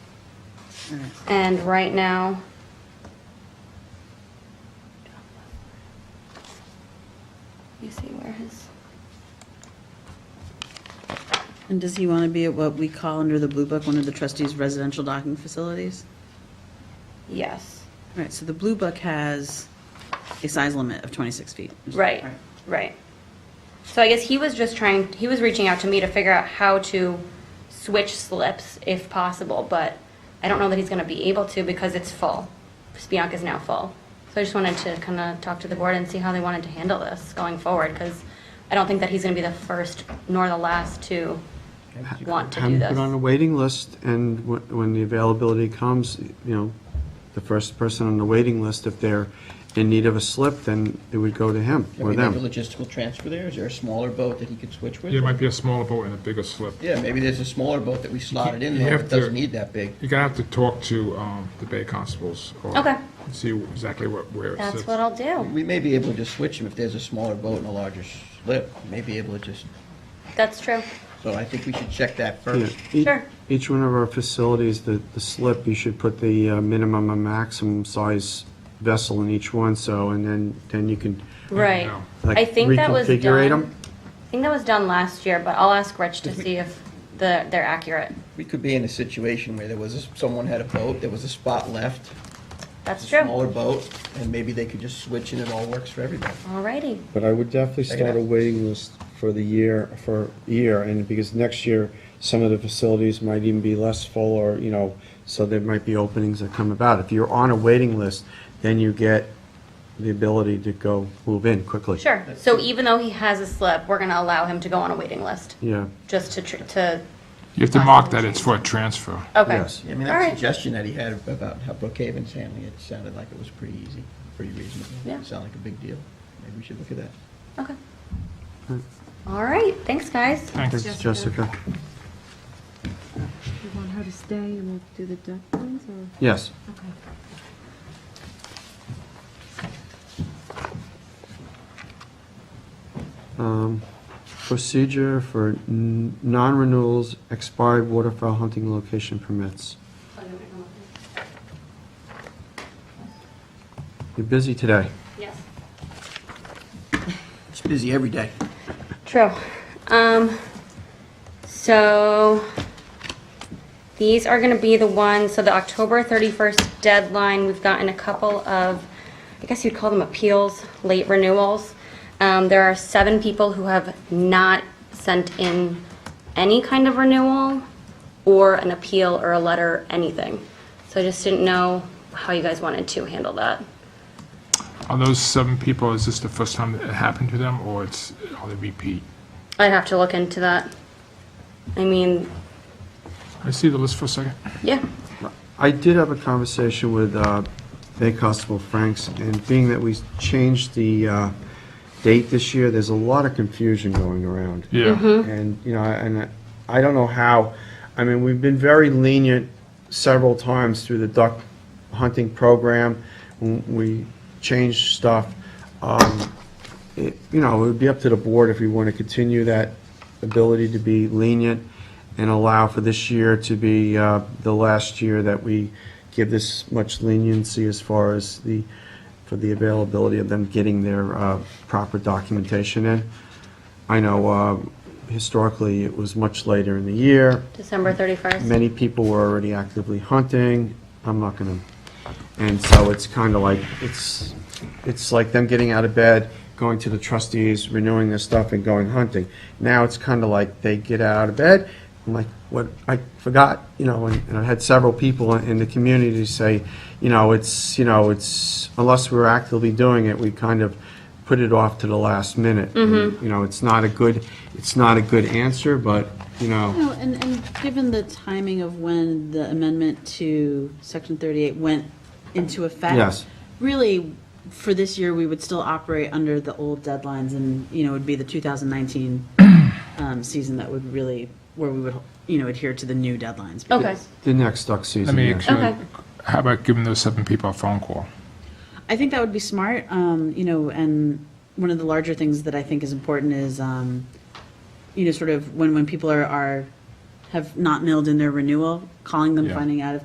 And right now. You see where his, And does he want to be at what we call under the Blue Book, one of the trustees' residential docking facilities? yes, All right, so the Blue Book has a size limit of 26 feet. right, right. So I guess he was just trying, he was reaching out to me to figure out how to switch slips if possible, but I don't know that he's gonna be able to because it's full. Spionk is now full. So I just wanted to kind of talk to the board and see how they wanted to handle this going forward, because I don't think that he's gonna be the first nor the last to want to do I'm this. put on a waiting list, and wh- when the availability comes, you know, the first person on the waiting list, if they're in need of a slip, then it would go to him Can or we make a them. logistical transfer there? Is there a smaller boat that he could switch with? Yeah, it might be a smaller boat and a bigger slip. Yeah, maybe there's a smaller boat that we slotted in you there have that doesn't to- need that big. You're gonna have to talk to um, the Bay Constables. or Okay. See exactly what- where it sits. That's what I'll do. We may be able to just switch them if there's a smaller boat and a larger slip. We May be able to just, That's true. so I think we should check that Yeah. first. E- Sure. Each one of our facilities, the, the slip, you should put the uh, minimum and maximum size vessel in each one, so, and then, then you can, Right. know. like, I think that was reconfigurate done. 'em? I think that was done last year, but I'll ask Rich to see if the, they're accurate. We could be in a situation where there was, a- someone had a boat, there was a spot left, That's smaller true. boat, and maybe they could just switch and it all works for everybody. Alrighty. But I would definitely Take it start a out. waiting list for the year, for year, and because next year, some of the facilities might even be less full, or, you know, so there might be openings that come about. If you're on a waiting list, then you get the ability to go move in quickly. Sure. So even though he has a slip, we're gonna allow him to go on a waiting list, Yeah, just to, tr- to, You have to mark that it's for a transfer. okay. yes. I mean, All that right. suggestion that he had about how Brookhaven's handling it sounded like it was pretty easy, pretty reasonable. Yeah. It Sounded like a big deal. Maybe we should look at that. Okay. Alright, thanks, guys. Thanks. Thanks, Jessica. You want her to stay and we'll do the duck things, or? Yes. Okay. Um, Procedure for n- non-renewals, expired waterfowl hunting location permits. You're busy today. Yes. It's busy every day. True. Um, so these are gonna be the ones, so the October thirty-first deadline, we've gotten a couple of, I guess you'd call them appeals, late renewals. Um, there are seven people who have not sent in any kind of renewal or an appeal or a letter, anything. So I just didn't know how you guys wanted to handle that. Are those seven people, is this the first time that it happened to them, or it's, are they repeat? I'd have to look into that. I mean, Can I see the list for a second? yeah, I did have a conversation with uh, Bay Constable Franks, and being that we changed the uh, date this year, there's a lot of confusion going around. Yeah. And, you know, and I don't know how, I mean, we've been very lenient several times through the duck hunting program. We changed stuff. Um, it- You know, it would be up to the board if we want to continue that ability to be lenient and allow for this year to be uh, the last year that we give this much leniency as far as the, for the availability of them getting their uh, proper documentation in. I know uh, historically, it was much later in the year. December thirty-first. Many people were already actively hunting. I'm not going to, and so it's kind of like, it's, it's like them getting out of bed, going to the trustees, renewing their stuff and going hunting. Now it's kind of like they get out of bed, I'm like, what, I forgot, you know, and and I've had several people in in the community say, you know, it's, you know, it's, unless we're actively doing it, we kind of put it off to the last minute. You know, it's not a good, it's not a good answer, but, you know. No, and, and given the timing of when the amendment to Section 38 went into effect. Yes. Really, for this year, we would still operate under the old deadlines and, you know, it would be the 2019 um, season that would really, where we would, you know, adhere to the new deadlines. Okay. The next duck I season, mean, yeah. Okay. actually, how about giving those seven people a phone call? I think that would be smart, um, you know, and one of the larger things that I think is important is, um, you know, sort of when, when people are, are, have not milled in their renewal, calling them, Yeah. finding out if